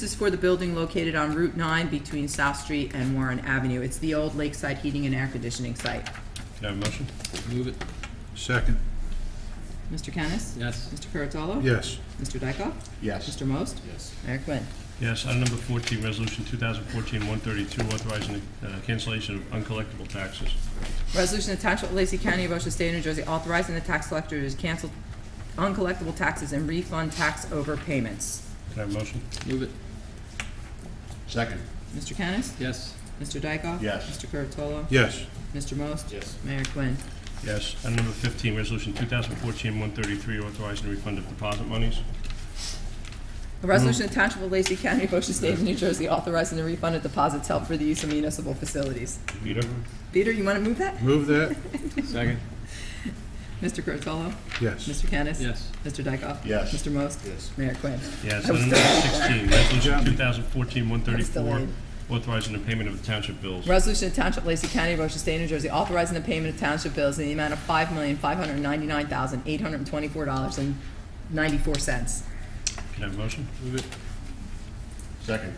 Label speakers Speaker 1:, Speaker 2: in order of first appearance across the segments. Speaker 1: This is for the building located on Route 9 between South Street and Warren Avenue. It's the old Lakeside Heating and Air Conditioning site.
Speaker 2: Can I have a motion?
Speaker 3: Move it,
Speaker 2: Second.
Speaker 1: Mr. Kennis?
Speaker 3: yes.
Speaker 1: Mr. Curatolo?
Speaker 2: Yes.
Speaker 1: Mr. Dykoff?
Speaker 4: yes,
Speaker 1: Mr. Most?
Speaker 3: Yes.
Speaker 1: Mayor Quinn.
Speaker 2: Yes, item number 14, resolution 2014-132, authorizing the uh, cancellation of uncollectible taxes.
Speaker 1: Resolution to Township of Lacey County, Ocean State, New Jersey, authorizing the tax collector to cancel uncollectible taxes and refund tax overpayments.
Speaker 2: Can I have a motion?
Speaker 3: Move it,
Speaker 4: second,
Speaker 1: Mr. Kennis?
Speaker 3: yes.
Speaker 1: Mr. Dykoff?
Speaker 4: Yes.
Speaker 1: Mr. Curatolo?
Speaker 2: Yes.
Speaker 1: Mr. Most?
Speaker 3: Yes.
Speaker 1: Mayor Quinn.
Speaker 2: Yes. Item number 15, resolution 2014-133, authorizing the refund of deposit monies.
Speaker 1: A resolution
Speaker 4: Mm.
Speaker 1: of Township of Lacey County, Ocean State, New Jersey, authorizing the refund of deposits held for the use of municipal facilities.
Speaker 2: Peter?
Speaker 1: Peter, you want to move that?
Speaker 2: Move that.
Speaker 3: Second,
Speaker 1: Mr. Curatolo?
Speaker 2: Yes.
Speaker 1: Mr. Kennis?
Speaker 3: yes.
Speaker 1: Mr. Dykoff?
Speaker 4: Yes.
Speaker 1: Mr. Most? Yes. Mayor Quinn.
Speaker 2: Yes.
Speaker 1: I was
Speaker 2: Item number 16, resolution
Speaker 1: was delayed.
Speaker 2: 2014-134, authorizing the payment of the township bills.
Speaker 1: Resolution of Township of Lacey County, Ocean State, New Jersey, authorizing the payment of township bills in the amount of five million, five hundred ninety-nine thousand, eight hundred twenty-four dollars and ninety-four cents.
Speaker 2: Can I have a motion?
Speaker 3: Move it,
Speaker 4: second,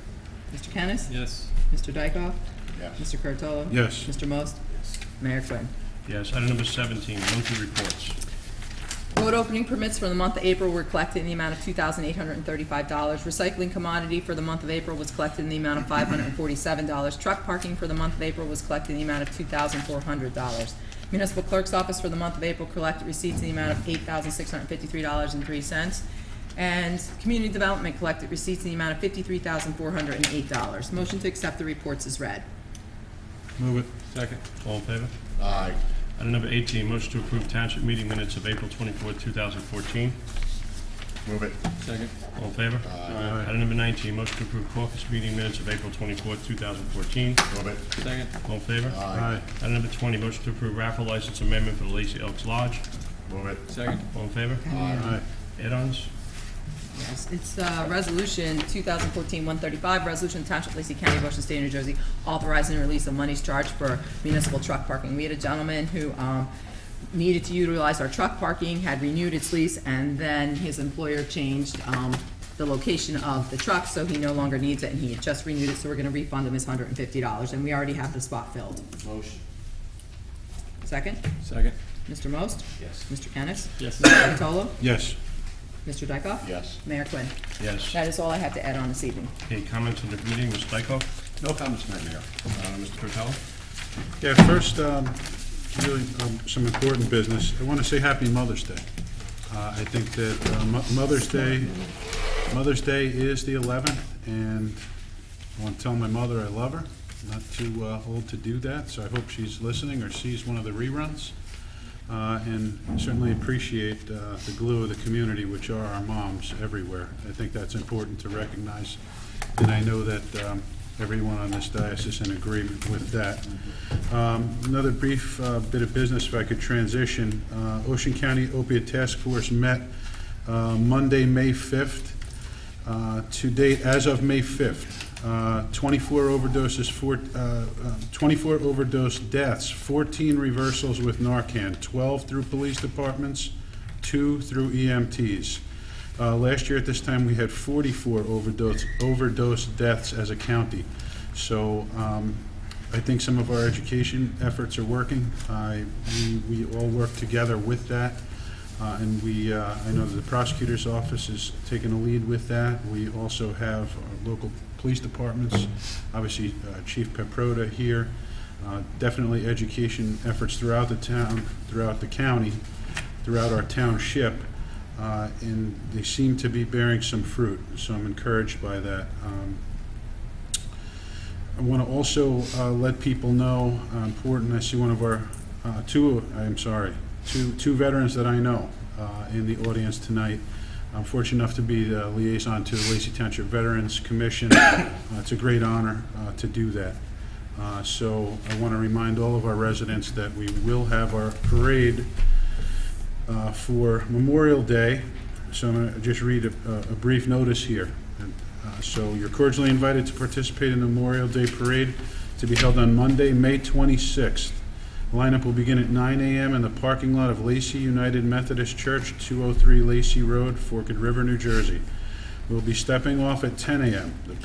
Speaker 1: Mr. Kennis?
Speaker 3: yes.
Speaker 1: Mr. Dykoff?
Speaker 4: yes,
Speaker 1: Mr. Curatolo?
Speaker 2: Yes.
Speaker 1: Mr. Most? Mayor Quinn.
Speaker 2: Yes. Item number 17, monthly reports.
Speaker 1: Road opening permits for the month of April were collected in the amount of two thousand eight hundred and thirty-five dollars. Recycling commodity for the month of April was collected in the amount of five hundred and forty-seven dollars. Truck parking for the month of April was collected in the amount of two thousand four hundred dollars. Municipal clerk's office for the month of April collected receipts in the amount of eight thousand six hundred and fifty-three dollars and three cents. And community development collected receipts in the amount of fifty-three thousand four hundred and eight dollars. Motion to accept the reports is read.
Speaker 2: Move it.
Speaker 3: Second,
Speaker 2: All in favor?
Speaker 4: aye,
Speaker 2: Item number 18, motion to approve township meeting minutes of April 24, 2014.
Speaker 4: move it,
Speaker 3: second,
Speaker 2: All in favor? Aye. Item number 19, motion to approve caucus meeting minutes of April 24, 2014.
Speaker 4: move it,
Speaker 3: second,
Speaker 2: All in favor?
Speaker 4: Aye.
Speaker 2: Item number 20, motion to approve raffle license amendment for the Lacey Elks Lodge.
Speaker 4: move it,
Speaker 3: second,
Speaker 2: All in favor? Aye. Add-ons?
Speaker 1: Yes, it's uh, Resolution 2014-135, Resolution Township of Lacey County, Ocean State, New Jersey, authorizing the release of monies charged for municipal truck parking. We had a gentleman who um, needed to utilize our truck parking, had renewed its lease, and then his employer changed um, the location of the truck, so he no longer needs it, and he had just renewed it, so we're going to refund him his $150, and we already have the spot filled.
Speaker 3: Motion.
Speaker 1: Second,
Speaker 3: second,
Speaker 1: Mr. Most?
Speaker 3: yes.
Speaker 1: Mr. Kennis?
Speaker 3: Yes.
Speaker 1: Mr. Curatolo?
Speaker 2: Yes.
Speaker 1: Mr. Dykoff?
Speaker 4: yes.
Speaker 1: Mayor Quinn.
Speaker 2: Yes.
Speaker 1: That is all I have to add on this evening.
Speaker 2: Any comments on the meeting, Mr. Dykoff?
Speaker 4: No comments, Madam Mayor.
Speaker 2: Uh, Mr. Curatolo?
Speaker 5: Yeah, first, um, really, um, some important business. I want to say Happy Mother's Day. Uh, I think that uh, Mo- Mother's Day, Mother's Day is the 11th, and I want to tell my mother I love her. Not too uh, old to do that, so I hope she's listening or sees one of the reruns. Uh, And certainly appreciate uh, the glue of the community, which are our moms everywhere. I think that's important to recognize, and I know that um, everyone on this diocese is in agreement with that. Um, Another brief uh, bit of business, if I could transition. Uh, Ocean County Opiate Task Force met uh, Monday, May 5th. Uh, To date, as of May 5th, uh, 24 overdoses, four- uh, uh, 24 overdose deaths, 14 reversals with Narcan, 12 through police departments, two through EMTs. Uh, Last year at this time, we had 44 overdose overdose deaths as a county. So um, I think some of our education efforts are working. I- We we all work together with that. Uh, And we, uh, I know that the prosecutor's office is taking a lead with that. We also have our local police departments, obviously uh, Chief Peproda here. Uh, Definitely education efforts throughout the town, throughout the county, throughout our township. uh, And they seem to be bearing some fruit, so I'm encouraged by that. Um, I want to also uh, let people know, uh, important, I see one of our, uh, two, I'm sorry, two, two veterans that I know uh, in the audience tonight. I'm fortunate enough to be the liaison to the Lacey Township Veterans Commission. Uh, It's a great honor uh, to do that. Uh, So I want to remind all of our residents that we will have our parade uh, for Memorial Day, so I'm going to just read a a brief notice here. Uh, So you're cordially invited to participate in the Memorial Day Parade to be held on Monday, May 26th. Lineup will begin at 9 a.m. in the parking lot oh of Lacey United Methodist Church, 203 Lacey Road, Forked River, New Jersey. will be stepping off at 10 a.m. The